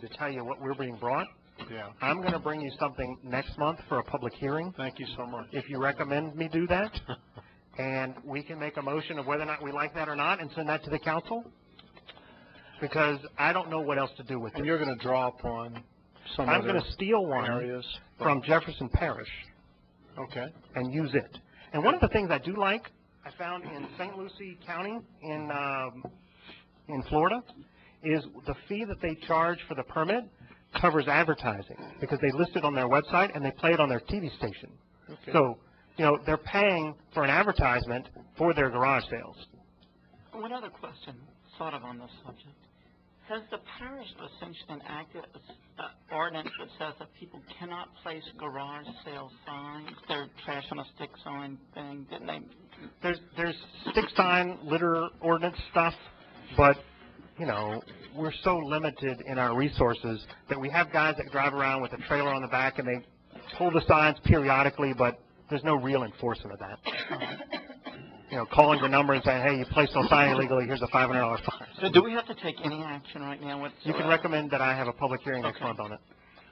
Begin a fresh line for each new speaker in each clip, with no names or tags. to tell you what we're being brought.
Yeah,
I'm gonna bring you something next month for a public hearing,
thank you so much.
if you recommend me do that. And we can make a motion of whether or not we like that or not and send that to the council. Because I don't know what else to do with
And
it.
you're gonna draw upon some
I'm
other
gonna steal one
areas?
from Jefferson Parish
Okay,
and use it. And one of the things I do like, I found in St. Lucie County in, um, in Florida, is the fee that they charge for the permit covers advertising, because they list it on their website and they play it on their TV station.
okay.
So, you know, they're paying for an advertisement for their garage sales.
One other question, sort of on this subject. Has the parish of Ascension enacted a s- a uh, ordinance that says that people cannot place garage sale signs, their trash on a stick sign thing, didn't they?
There's, there's stick sign, litter ordinance stuff, but, you know, we're so limited in our resources that we have guys that drive around with a trailer on the back and they pull the signs periodically, but there's no real enforcement of that. You know, calling the number and saying, hey, you placed no sign illegally, here's a five hundred dollar
So
fine.
do we have to take any action right now whatsoever?
You can recommend that I have a public hearing next
Okay.
month on it.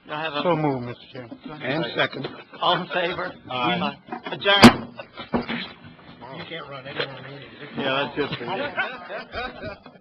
Do I have a?
So move, Mr. Chairman.
And second.
All in favor?
Aye.
Adjourn.
You can't run any more meetings.
Yeah, that's just for you.